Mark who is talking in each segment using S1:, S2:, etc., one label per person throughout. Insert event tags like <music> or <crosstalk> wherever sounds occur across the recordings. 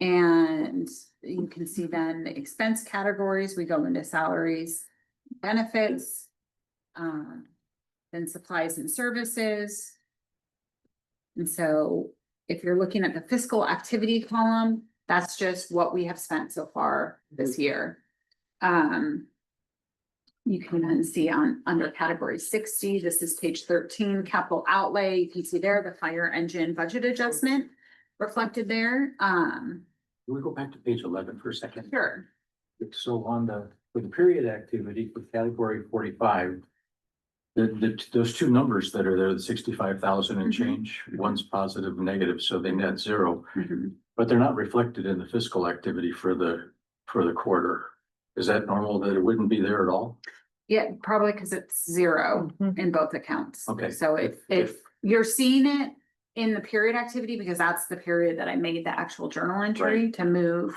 S1: And you can see then the expense categories, we go into salaries, benefits. Um, then supplies and services. And so if you're looking at the fiscal activity column, that's just what we have spent so far this year. Um. You can then see on, under category sixty, this is page thirteen, capital outlay, you can see there the fire engine budget adjustment reflected there, um.
S2: Can we go back to page eleven for a second?
S1: Sure.
S2: So on the, for the period activity for category forty-five. The, the, those two numbers that are there, the sixty-five thousand and
S1: Mhm.
S2: change, one's positive and negative, so they net zero. But they're not reflected in the fiscal activity for the, for the quarter. Is that normal that it wouldn't be there at all?
S1: Yeah, probably because it's zero in both accounts.
S2: Okay.
S1: So if,
S2: If-
S1: if you're seeing it in the period activity, because that's the period that I made the actual journal entry to move.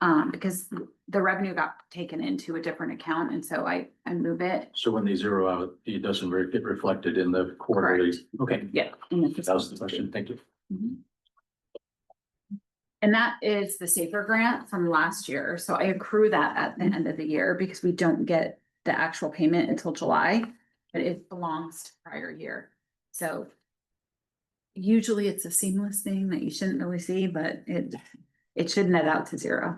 S1: Um, because the revenue got taken into a different account, and so I, I move it.
S2: So when they zero out, it doesn't re- get reflected in the quarterly. Okay,
S1: Yeah.
S2: that was the question. Thank you.
S1: And that is the safer grant from last year, so I accrue that at
S3: Mm-hmm.
S1: the end of the year because we don't get the actual payment until July. But it belongs to prior year, so. Usually it's a seamless thing that you shouldn't really see, but it, it should net out to zero.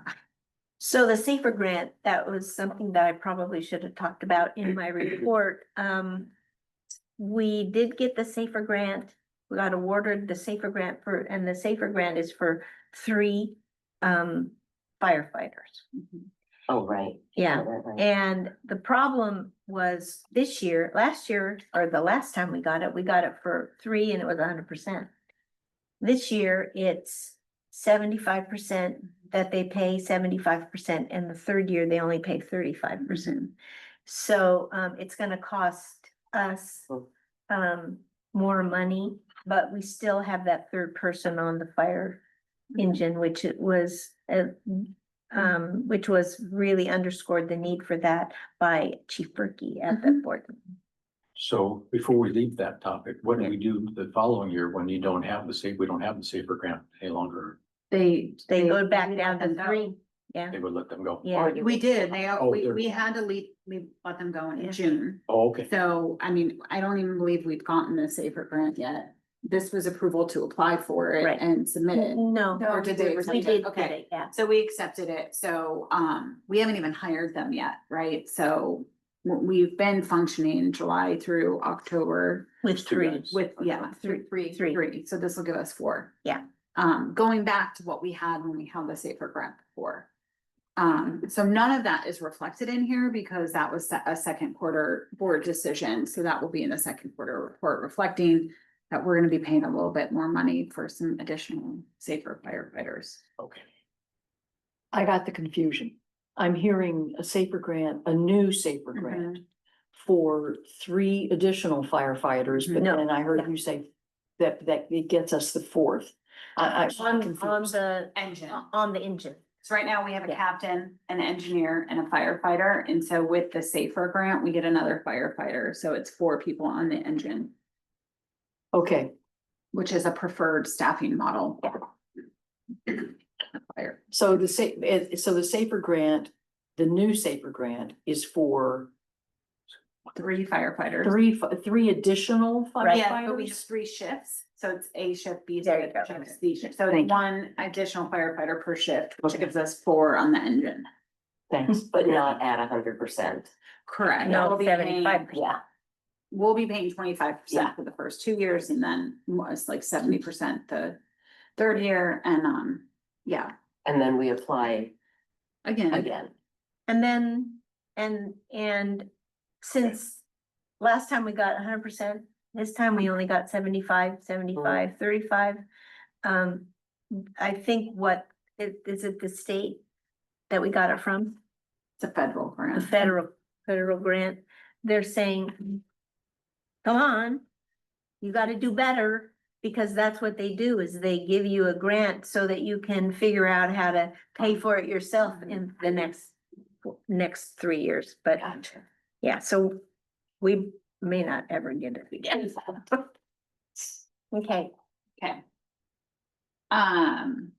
S3: So the safer grant, that was something that I probably should have talked about in my report. Um, we did get the safer grant. We got awarded the safer grant for, and the safer grant is for three um firefighters.
S4: Oh, right.
S3: Yeah,
S4: Right, right, right.
S3: and the problem was this year, last year, or the last time we got it, we got it for three and it was hundred percent. This year, it's seventy-five percent that they pay seventy-five percent, and the third year, they only pay thirty-five percent. So um it's gonna cost us
S1: Hmm.
S4: Oh.
S3: um more money, but we still have that third person on the fire engine, which it was uh, um, which was really underscored the need for that by Chief Berkey at the
S1: Mhm.
S3: board.
S2: So before we leave that topic, what do we do the following year when you don't have the safe, we don't have the safer grant any longer?
S1: They.
S3: They go back down
S1: them
S3: to
S1: go.
S3: three, yeah,
S2: They would let them go?
S3: yeah.
S1: We did, they,
S2: Oh,
S1: we,
S2: they're-
S1: we had to leave, we let them go
S3: Yeah.
S1: in June.
S2: Oh, okay.
S1: So, I mean, I don't even believe we've gotten the safer grant yet. This was approval to apply for it
S3: Right.
S1: and submit it.
S3: No,
S1: Or did they
S3: we
S1: accept
S3: did
S1: it?
S3: get
S1: Okay,
S3: it, yeah.
S1: so we accepted it. So, um, we haven't even hired them yet, right? So w- we've been functioning July through October
S3: With
S2: two
S3: three,
S2: guys.
S1: with, yeah, three,
S3: Three.
S1: three,
S3: Three.
S1: three. So this will give us four.
S3: Yeah.
S1: Um, going back to what we had when we held the safer grant before. Um, so none of that is reflected in here because that was se- a second quarter board decision. So that will be in the second quarter report reflecting that we're gonna be paying a little bit more money for some additional safer firefighters.
S2: Okay.
S4: I got the confusion. I'm hearing a safer grant, a new safer grant for three additional firefighters, but
S3: Mm-hmm. No,
S4: then I
S3: yeah.
S4: heard you say that, that it gets us the fourth. I, I.
S3: On, on the,
S1: Engine.
S3: on the engine.
S1: So right now we have a
S3: Yeah.
S1: captain, an engineer and a firefighter. And so with the safer grant, we get another firefighter. So it's four people on the engine.
S4: Okay,
S1: which is a preferred staffing model. Fire.
S4: so the sa- eh, so the safer grant, the new safer grant is for
S1: Three firefighters.
S4: three, fi- three additional
S3: Right.
S1: Yeah, but we have
S4: firefighters?
S1: three shifts, so it's A shift, B
S3: There you
S1: shift,
S3: go.
S1: shift, C shift. So
S4: Thank you.
S1: it's one additional firefighter per shift, which
S4: Okay.
S1: gives us four on the engine.
S4: Thanks.
S5: but not at a hundred percent.
S1: Correct.
S3: No, seventy-five
S5: Yeah.
S1: We'll be paying twenty-five
S5: Yeah.
S1: percent for the first two years and then mo- it's like seventy percent the third year and, um, yeah,
S5: And then we apply
S3: Mm-hmm.
S1: again.
S5: again.
S3: And then, and, and since last time we got hundred percent, this time we only got 75, 75, 35. Um, I think what, is, is it the state that we got it from?
S1: It's a federal
S3: The
S1: grant.
S3: federal, federal grant, they're saying, come on, you gotta do better, because that's what they do, is they give you a grant so that you can figure out how to pay for it yourself in the next, next three years, but
S5: Gotcha.
S3: yeah, so we may not ever get it
S1: <laughs>
S3: again. Okay,
S1: Um,